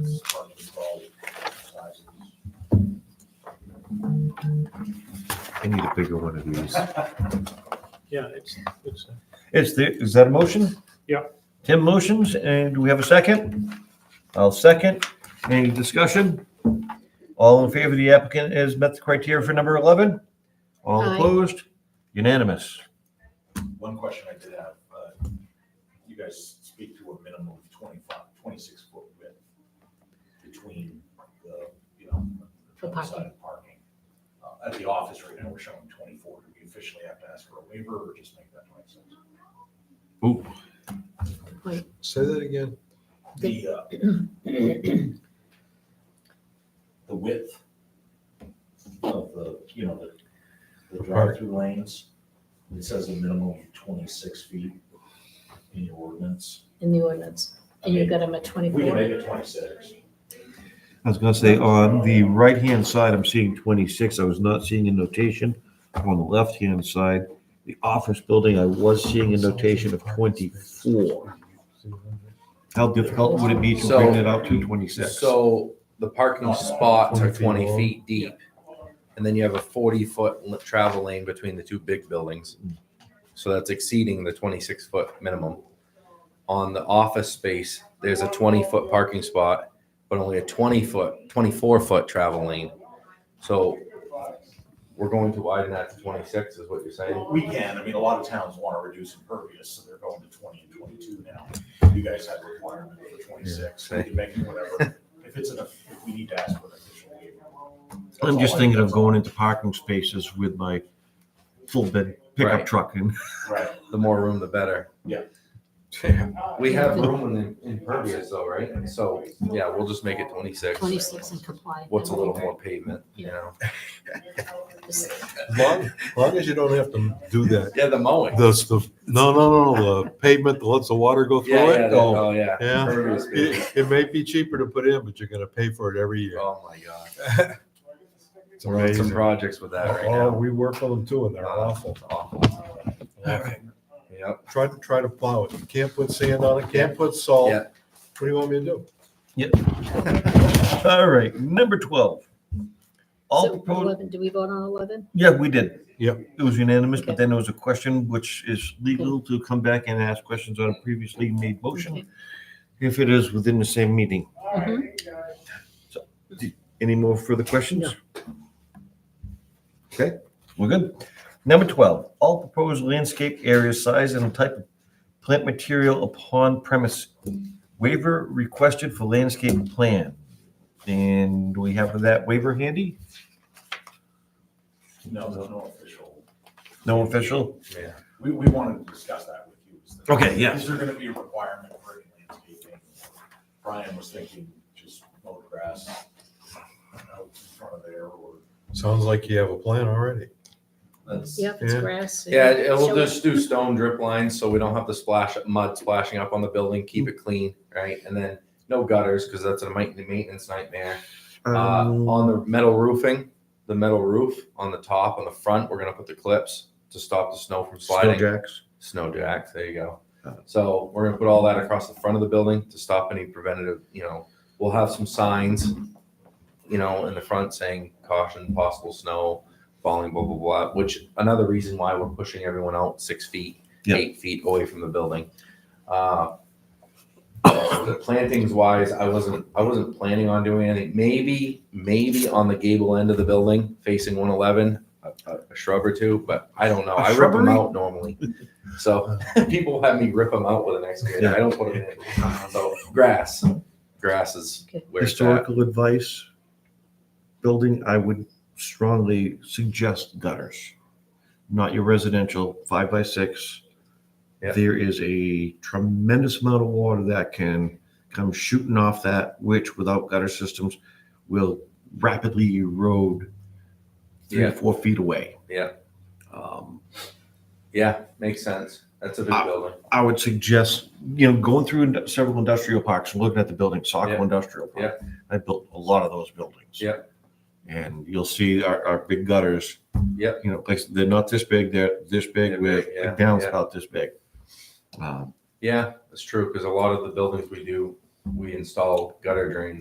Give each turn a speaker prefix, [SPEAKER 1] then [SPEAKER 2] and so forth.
[SPEAKER 1] it's hard to call sizes.
[SPEAKER 2] I need a bigger one of these.
[SPEAKER 3] Yeah, it's, it's,
[SPEAKER 2] It's the, is that a motion?
[SPEAKER 3] Yeah.
[SPEAKER 2] Tim motions, and do we have a second? I'll second. Any discussion? All in favor, the applicant has met the criteria for number 11? All
[SPEAKER 4] Aye.
[SPEAKER 2] opposed? Unanimous.
[SPEAKER 1] One question I did have, uh, you guys speak to a minimum of 25, 26 foot width between the, you know,
[SPEAKER 4] For
[SPEAKER 1] the
[SPEAKER 4] parking.
[SPEAKER 1] side of parking. Uh, At the office right now, we're showing 24. Do we officially have to ask for a waiver or just make that 26?
[SPEAKER 2] Ooh.
[SPEAKER 5] Say that again.
[SPEAKER 1] The, uh, the width of the, you know, the, the drive-through lanes, it says a minimum of twenty-six feet in your ordinance.
[SPEAKER 4] in the ordinance, and you got them at
[SPEAKER 1] We can
[SPEAKER 4] twenty-four.
[SPEAKER 1] make it twenty-six.
[SPEAKER 2] I was gonna say, on the right-hand side, I'm seeing twenty-six, I was not seeing a notation. On the left-hand side, the office building, I was seeing a notation of twenty-four. How difficult would it be to bring it out to twenty-six?
[SPEAKER 6] So the parking spots are twenty feet deep. And then you have a forty foot l- travel lane between the two big buildings. So that's exceeding the twenty six foot minimum. On the office space, there's a twenty foot parking spot, but only a twenty foot, twenty four foot travel lane. So we're going to widen that to twenty six is what you're saying?
[SPEAKER 1] We can, I mean, a lot of towns want to reduce impervious, so they're going to twenty and twenty-two now. You guys have a requirement for twenty-six, we can make it whatever. If it's enough, if we need to ask for an official waiver. That's
[SPEAKER 2] I'm
[SPEAKER 1] all
[SPEAKER 2] just
[SPEAKER 1] I-
[SPEAKER 2] thinking of
[SPEAKER 1] that's all.
[SPEAKER 2] going into parking spaces with my full bed pickup
[SPEAKER 6] Right.
[SPEAKER 2] truck and
[SPEAKER 1] Right,
[SPEAKER 6] The more room, the better.
[SPEAKER 1] Yeah.
[SPEAKER 6] We have room in the impervious though, right? So, yeah, we'll just make it twenty six.
[SPEAKER 4] Twenty-six and comply.
[SPEAKER 6] what's a little more pavement, you know?
[SPEAKER 5] As long, as long as you don't have to do that.
[SPEAKER 6] Yeah, the mowing.
[SPEAKER 5] The, the, no, no, no, the pavement that lets the water go
[SPEAKER 6] Yeah,
[SPEAKER 5] through
[SPEAKER 6] yeah,
[SPEAKER 5] it.
[SPEAKER 6] the-
[SPEAKER 5] Oh,
[SPEAKER 6] oh, yeah.
[SPEAKER 5] Yeah.
[SPEAKER 6] Impervious pavement.
[SPEAKER 5] It, it may be cheaper to put in, but you're gonna pay for it every year.
[SPEAKER 6] Oh, my God.
[SPEAKER 5] It's
[SPEAKER 6] We're on some
[SPEAKER 5] amazing.
[SPEAKER 6] projects with that right
[SPEAKER 5] Oh,
[SPEAKER 6] now.
[SPEAKER 5] we work on them too and they're awful.
[SPEAKER 6] Awful. Yep.
[SPEAKER 5] Try to, try to plow it. You can't put sand on it, can't put salt.
[SPEAKER 6] Yeah.
[SPEAKER 5] What do you want me to do?
[SPEAKER 2] All right, number twelve. All
[SPEAKER 4] So
[SPEAKER 2] proposed,
[SPEAKER 4] eleven, do we vote on eleven?
[SPEAKER 2] yeah, we did.
[SPEAKER 5] Yep.
[SPEAKER 2] It was unanimous,
[SPEAKER 4] Okay.
[SPEAKER 2] but then there was a question which is legal to come back and ask questions on a previously made motion if it is within the same meeting.
[SPEAKER 4] Mhm.
[SPEAKER 2] Any more further questions? Okay, we're good. Number 12, all proposed landscape area size and type of plant material upon premise. Waiver requested for landscape plan. And do we have that waiver handy?
[SPEAKER 1] no, no, no official.
[SPEAKER 2] No official?
[SPEAKER 1] We, we wanted to discuss that with you. is that-
[SPEAKER 2] Okay, yeah.
[SPEAKER 1] Is there gonna be a requirement for any landscaping? Brian was thinking just mowed grass out in front of there or.
[SPEAKER 5] Sounds like you have a plan already.
[SPEAKER 6] That's-
[SPEAKER 4] Yep, it's
[SPEAKER 5] Yeah.
[SPEAKER 4] grass. and-
[SPEAKER 6] Yeah, it
[SPEAKER 4] So
[SPEAKER 6] will just do stone drip lines, so we don't have the splash, mud splashing up on the building, keep it clean, right? And then no gutters, because that's a main- maintenance nightmare. Uh,
[SPEAKER 2] Um,
[SPEAKER 6] on the metal roofing, the metal roof on the top, on the front, we're gonna put the clips to stop the snow from
[SPEAKER 2] Snow
[SPEAKER 6] sliding.
[SPEAKER 2] jacks.
[SPEAKER 6] Snow jacks, there you go.
[SPEAKER 2] Oh.
[SPEAKER 6] So we're gonna put all that across the front of the building to stop any preventative, you know, we'll have some signs, you know, in the front saying caution, possible snow, falling, blah, blah, blah, which another reason why we're pushing everyone out six feet,
[SPEAKER 2] Yeah.
[SPEAKER 6] eight feet away from the building. Uh, the Plantings wise, I wasn't, I wasn't planning on doing anything. Maybe, maybe on the gable end of the building facing one eleven, a, a- a shrub or two, but I don't know.
[SPEAKER 2] A
[SPEAKER 6] I rip them
[SPEAKER 2] shrubbery?
[SPEAKER 6] out normally. So people have me rip them out with an excavator. I don't put them in. So grass, grass is
[SPEAKER 4] Okay.
[SPEAKER 6] where it's at.
[SPEAKER 2] Historical advice, building, I would strongly suggest gutters, not your residential five by six.
[SPEAKER 6] Yeah.
[SPEAKER 2] There is a tremendous amount of water that can come shooting off that, which without gutter systems will rapidly erode three
[SPEAKER 6] Yeah.
[SPEAKER 2] to four feet away.
[SPEAKER 6] Yeah.
[SPEAKER 2] Um,
[SPEAKER 6] Yeah, makes sense. That's a big
[SPEAKER 2] Uh,
[SPEAKER 6] building.
[SPEAKER 2] I would suggest, you know, going through ind- several industrial parks and looking at the buildings, Saco
[SPEAKER 6] Yeah.
[SPEAKER 2] Industrial Park. I built a lot of those buildings.
[SPEAKER 6] Yeah.
[SPEAKER 2] And you'll see our, our big gutters.
[SPEAKER 6] Yeah.
[SPEAKER 2] You know, like, they're not this big, they're this big
[SPEAKER 6] They're
[SPEAKER 2] with
[SPEAKER 6] big,
[SPEAKER 2] a
[SPEAKER 6] yeah,
[SPEAKER 2] downspout this big. Um,
[SPEAKER 6] Yeah, that's true, because a lot of the buildings we do, we install gutter drains